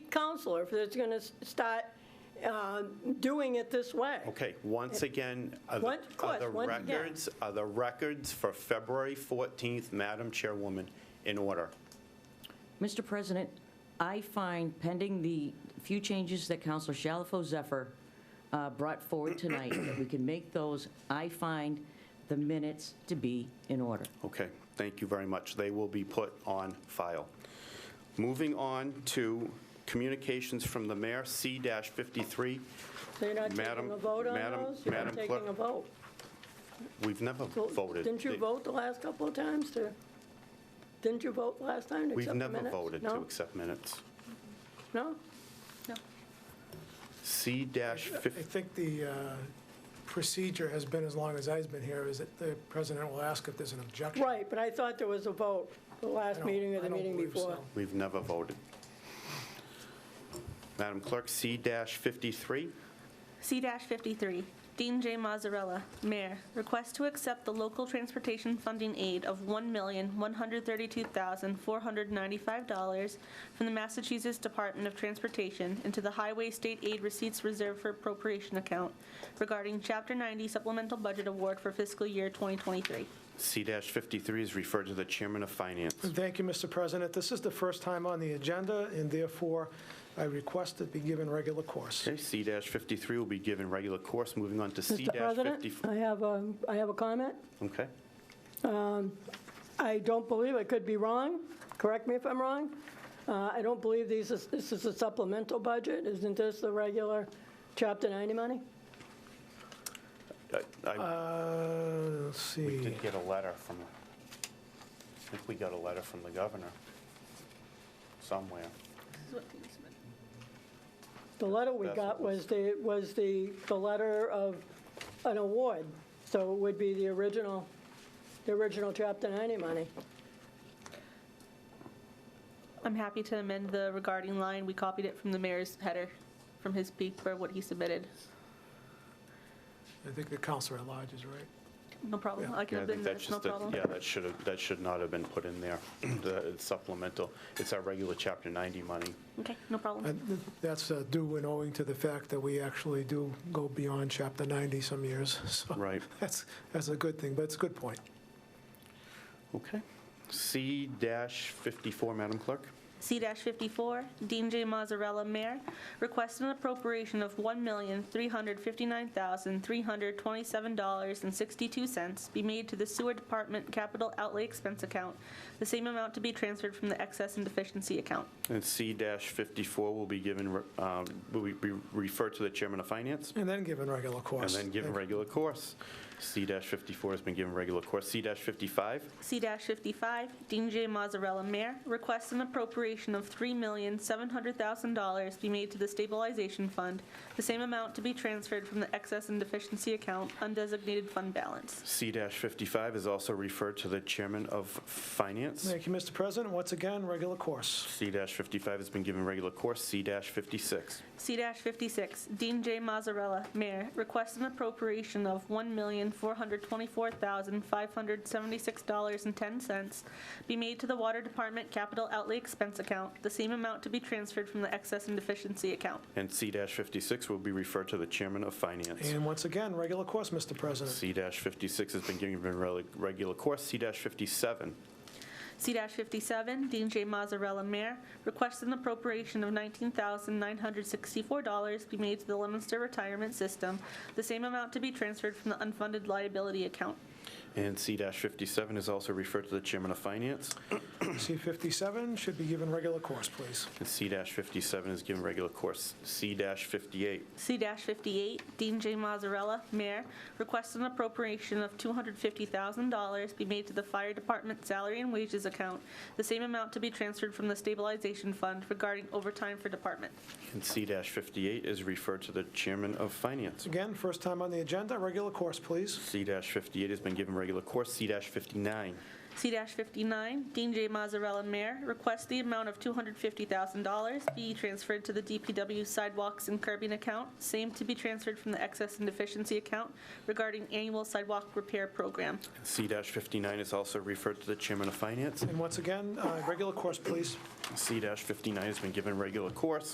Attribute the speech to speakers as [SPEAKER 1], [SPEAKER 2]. [SPEAKER 1] counselor if it's going to start uh, doing it this way.
[SPEAKER 2] Okay, once again, are the-
[SPEAKER 1] Once- of
[SPEAKER 2] are
[SPEAKER 1] course,
[SPEAKER 2] the
[SPEAKER 1] once again.
[SPEAKER 2] records, are the records for February 14th, Madam Chairwoman, in order?
[SPEAKER 3] Mr. President, I find pending the few changes that Counselor Shalfo Zephyr uh, brought forward tonight, that we can make those, I find the minutes to be in order.
[SPEAKER 2] Okay, thank you very much. They will be put on file. Moving on to communications from the mayor, C-53.
[SPEAKER 1] So you're not
[SPEAKER 2] Madam-
[SPEAKER 1] taking a vote on
[SPEAKER 2] Madam-
[SPEAKER 1] those? You're not
[SPEAKER 2] Madam Clerk,
[SPEAKER 1] taking a vote?
[SPEAKER 2] We've never
[SPEAKER 1] So
[SPEAKER 2] voted.
[SPEAKER 1] Didn't you
[SPEAKER 2] They-
[SPEAKER 1] vote the last couple of times to, didn't you vote last time to
[SPEAKER 2] We've
[SPEAKER 1] accept the
[SPEAKER 2] never
[SPEAKER 1] minutes?
[SPEAKER 2] voted to
[SPEAKER 1] No?
[SPEAKER 2] accept minutes.
[SPEAKER 1] No?
[SPEAKER 4] I
[SPEAKER 2] C-50,
[SPEAKER 4] think the uh, procedure has been, as long as I've been here, is that the president will ask if there's an objection.
[SPEAKER 1] Right, but I thought there was a vote, the
[SPEAKER 4] I
[SPEAKER 1] last
[SPEAKER 4] don't-
[SPEAKER 1] meeting or
[SPEAKER 4] I
[SPEAKER 1] the
[SPEAKER 4] don't
[SPEAKER 1] meeting
[SPEAKER 4] believe
[SPEAKER 1] before.
[SPEAKER 4] so.
[SPEAKER 2] we've never voted. Madam Clerk, C-53.
[SPEAKER 5] C-53, Dean J. Mazzarella, Mayor, request to accept the local transportation funding aid of $1,132,495 from the Massachusetts Department of Transportation into the Highway State Aid Receipts Reserve for Appropriation Account regarding Chapter 90 Supplemental Budget Award for fiscal year 2023.
[SPEAKER 2] C-53 is referred to the Chairman of Finance.
[SPEAKER 4] Thank you, Mr. President. This is the first time on the agenda, and therefore I request it be given regular course.
[SPEAKER 2] Okay, C-53 will be given regular course. Moving on to
[SPEAKER 1] Mr. President,
[SPEAKER 2] C-54.
[SPEAKER 1] I have a, I have a comment.
[SPEAKER 2] Okay.
[SPEAKER 1] I don't believe, I could be wrong, correct me if I'm wrong. Uh, I don't believe these, is- this is a supplemental budget, isn't this the regular Chapter 90 money?
[SPEAKER 2] I- I
[SPEAKER 4] Uh, Let's see.
[SPEAKER 2] did get a letter from, I think we got a letter from the governor somewhere.
[SPEAKER 1] The letter we
[SPEAKER 2] That's what
[SPEAKER 1] got
[SPEAKER 2] was-
[SPEAKER 1] was the, was the, the letter of an award, so it would be the original, the original Chapter 90 money.
[SPEAKER 5] I'm happy to amend the regarding line. We copied it from the mayor's header, from his peak for what he submitted.
[SPEAKER 4] I think the counselor at large is right.
[SPEAKER 5] No problem. I can
[SPEAKER 2] Yeah, I think
[SPEAKER 5] amend
[SPEAKER 2] that's
[SPEAKER 5] that, no
[SPEAKER 2] just, a-
[SPEAKER 5] problem.
[SPEAKER 2] yeah, that should have, that should not have been put in there. The- It's supplemental. It's our regular Chapter 90 money.
[SPEAKER 5] Okay, no problem.
[SPEAKER 4] And th- That's uh, due and owing to the fact that we actually do go beyond Chapter 90 some years, so.
[SPEAKER 2] Right.
[SPEAKER 4] That's, that's a good thing, but it's a good point.
[SPEAKER 2] Okay. C-54, Madam Clerk.
[SPEAKER 5] C-54, Dean J. Mazzarella, Mayor, requests an appropriation of $1,359,327.62 be made to the Sewer Department Capital Outlay Expense Account, the same amount to be transferred from the Excess and Deficiency Account.
[SPEAKER 2] And C-54 will be given, um, will be be referred to the Chairman of Finance.
[SPEAKER 4] And then given regular
[SPEAKER 2] And
[SPEAKER 4] course.
[SPEAKER 2] then given regular course. C-54 has been given regular course. C-55,
[SPEAKER 5] C-55, Dean J. Mazzarella, Mayor, requests an appropriation of $3,700,000 be made to the Stabilization Fund, the same amount to be transferred from the Excess and Deficiency Account, undesignated fund balance.
[SPEAKER 2] C-55 is also referred to the Chairman of Finance.
[SPEAKER 4] Thank you, Mr. President. Once again, regular course.
[SPEAKER 2] C-55 has been given regular course. C-56.
[SPEAKER 5] C-56, Dean J. Mazzarella, Mayor, requests an appropriation of $1,424,576.10 be made to the Water Department Capital Outlay Expense Account, the same amount to be transferred from the Excess and Deficiency Account.
[SPEAKER 2] And C-56 will be referred to the Chairman of Finance.
[SPEAKER 4] And once again, regular course, Mr. President.
[SPEAKER 2] C-56 has been given rel- regular course. C-57.
[SPEAKER 5] C-57, Dean J. Mazzarella, Mayor, requests an appropriation of $19,964 be made to the Lemonster Retirement System, the same amount to be transferred from the unfunded liability account.
[SPEAKER 2] And C-57 is also referred to the Chairman of Finance.
[SPEAKER 4] C-57 should be given regular course, please.
[SPEAKER 2] And C-57 is given regular course. C-58.
[SPEAKER 5] C-58, Dean J. Mazzarella, Mayor, requests an appropriation of $250,000 be made to the Fire Department Salary and Wages Account, the same amount to be transferred from the Stabilization Fund regarding overtime for department.
[SPEAKER 2] And C-58 is referred to the Chairman of Finance.
[SPEAKER 4] Again, first time on the agenda, regular course, please.
[SPEAKER 2] C-58 has been given regular course. C-59.
[SPEAKER 5] C-59, Dean J. Mazzarella, Mayor, requests the amount of $250,000 be transferred to the DPW Sidewalks and Curbing Account, same to be transferred from the Excess and Deficiency Account regarding annual sidewalk repair program.
[SPEAKER 2] C-59 is also referred to the Chairman of Finance.
[SPEAKER 4] And once again, uh, regular course, please.
[SPEAKER 2] C-59 has been given regular course.